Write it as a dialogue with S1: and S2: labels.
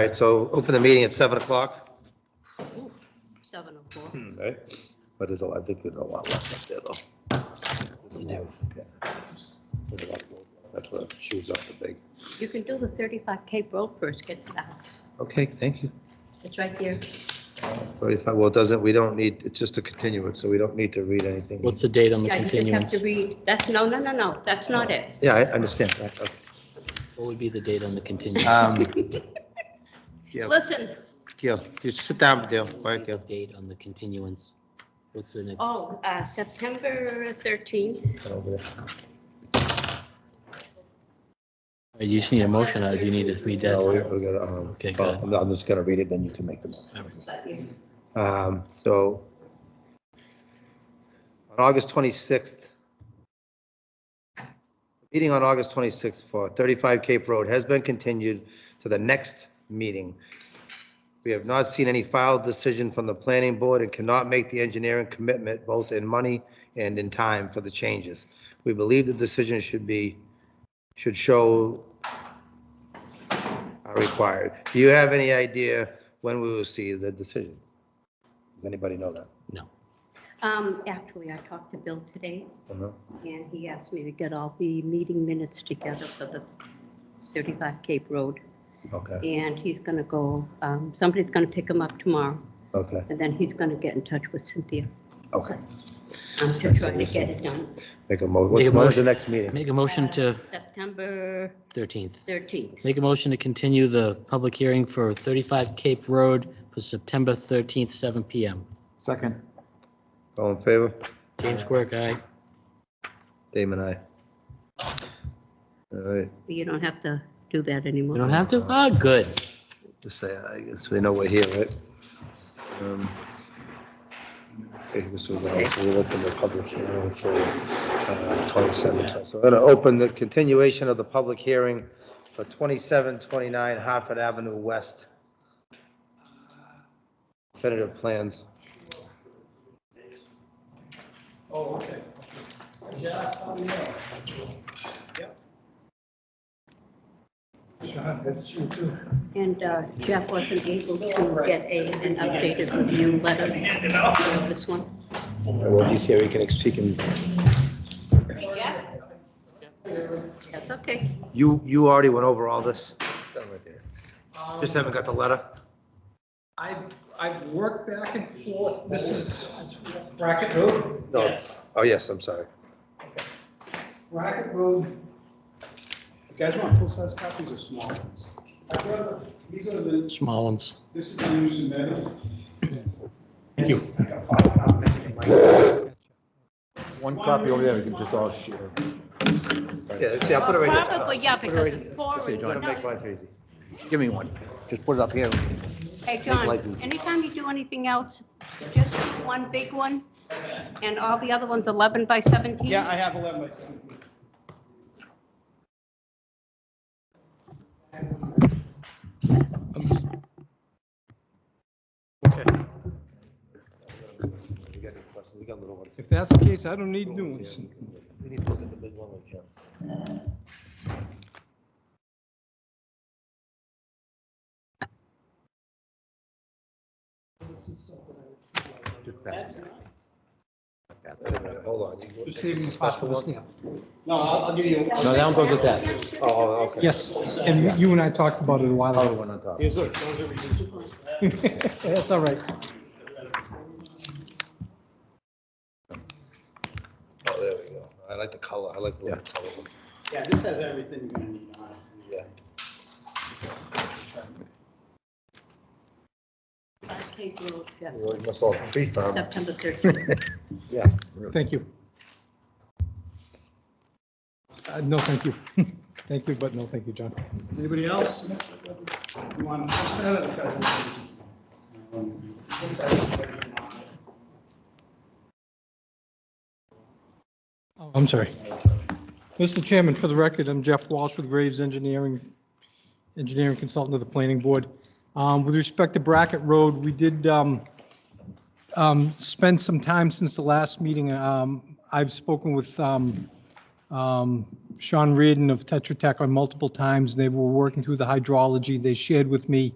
S1: All right, so open the meeting at seven o'clock.
S2: Seven oh four.
S3: Hmm.
S1: Right. But there's a lot, I think there's a lot left up there though. Yeah. There's a lot of road left. That's what shoes off the big.
S2: You can do the thirty-five K road first, get to the house.
S1: Okay, thank you.
S2: It's right there.
S1: Thirty-five, well, it doesn't, we don't need, it's just a continuance, so we don't need to read anything.
S3: What's the date on the
S2: Yeah, you just have
S3: continuance? Oh.
S2: to read, that's, no, no, no, no, that's not it.
S1: Yeah, I understand that. okay.
S3: What would be the date on the continuance?
S1: Um, Gil,
S2: Listen,
S1: Gil, you sit down, Gil. All right, Gil.
S3: Date on the continuance? What's the next?
S2: oh, uh, September thirteenth.
S1: Come over there.
S3: You just need a motion, or do you need to read
S1: No, we-
S3: that?
S1: we gotta, um,
S3: Okay, go ahead.
S1: well, I'm just gonna read it, then you can make the motion.
S2: That's
S1: Um, so on August 26th, meeting on August 26th for 35 Cape Road has been continued to the next meeting. We have not seen any filed decision from the planning board and cannot make the engineering commitment both in money and in time for the changes. We believe the decision should be, should show are required. Do you have any idea when we will see the decision? Does anybody know that?
S3: No.
S2: Um, actually, I talked to Bill today
S1: No.
S2: and he asked me to get all the meeting minutes together for the thirty-five Cape Road.
S1: Okay,
S2: And he's gonna go, um, somebody's gonna pick him up tomorrow
S1: okay,
S2: and then he's gonna get in touch with Cynthia,
S1: okay.
S2: um, to try to get it done. Uh,
S1: Make a mo,
S3: Make
S1: what's
S3: a
S1: when is the
S3: motion.
S1: next meeting?
S3: Make a motion to
S2: September
S3: 13th.
S2: 13th.
S3: Make a motion to continue the public hearing for 35 Cape Road for September 13th, 7 PM.
S4: Second,
S1: All in favor?
S3: James Quirk, aye.
S1: Damon, aye. All right,
S2: You don't have to do that anymore.
S3: You don't have to? Ah, good.
S1: just say aye, so they know we're here, right? Um, Okay, this was, uh, we'll open the public hearing for uh, 27. So we're going to open the continuation of the public hearing for 2729 Hartford Avenue West. Definitive plans.
S4: that's you too.
S2: And uh, Jeff wasn't able to get a, an updated review letter for this one.
S1: Well, he's here, he can, he can,
S2: That's okay.
S1: you, you already went over all this? Just haven't got the letter?
S5: I've, I've worked back and forth, this is Racket Road?
S1: No. Oh, yes, I'm sorry.
S5: Racket Road.
S4: You guys want full-size copies or small ones?
S5: I'd rather- These are the,
S3: Small ones.
S5: this is the new submitted.
S4: Thank you.
S5: I got five copies. One
S4: One copy over there, we can just all share.
S1: Yeah, see, I put it right here.
S2: Probably, yeah, because it's
S1: See,
S2: foreign.
S1: John, to make
S2: No,
S1: life easy. Give me one. Just put it up here.
S2: Hey,
S1: life easy.
S2: John, anytime you do anything else, just one big one, and all the other ones 11 by 17?
S5: Yeah, I have eleven by seventeen.
S1: We got these questions, we got little ones.
S5: If that's the case, I don't need new ones.
S1: We need to look at the big one with Jim. Just pass it back. Wait a minute, Hold on. you-
S5: Just saving the spot for the stamp. No, I'll, I'll give you.
S3: No, that one goes with that.
S1: Oh, okay.
S5: Yes, and you and I talked about it a while
S4: Oh,
S1: Other
S5: ago.
S1: one on top.
S4: Here's, look, those are reduced.
S5: That's all right.
S1: Oh, there we go. I like the color, I like the little color. one.
S4: Yeah, this has everything you're gonna need on it.
S1: Yeah. oh.
S2: Okay, well, yeah.
S1: You always must all tree farm.
S2: September 13th.
S1: Yeah.
S5: Thank you. Uh, No, thank you. Thank you, but no, thank you, John.
S4: Anybody else? You want to pass that or the presentation?
S5: Oh, I'm sorry. Mr. Chairman, for the record, I'm Jeff Walsh with Graves Engineering, engineering consultant of the planning board. Um, With respect to Brackett Road, we did um, um, spend some time since the last meeting. Um, I've spoken with um, um, Sean Reardon of Tetra Tech on multiple times. They were working through the hydrology. They shared with me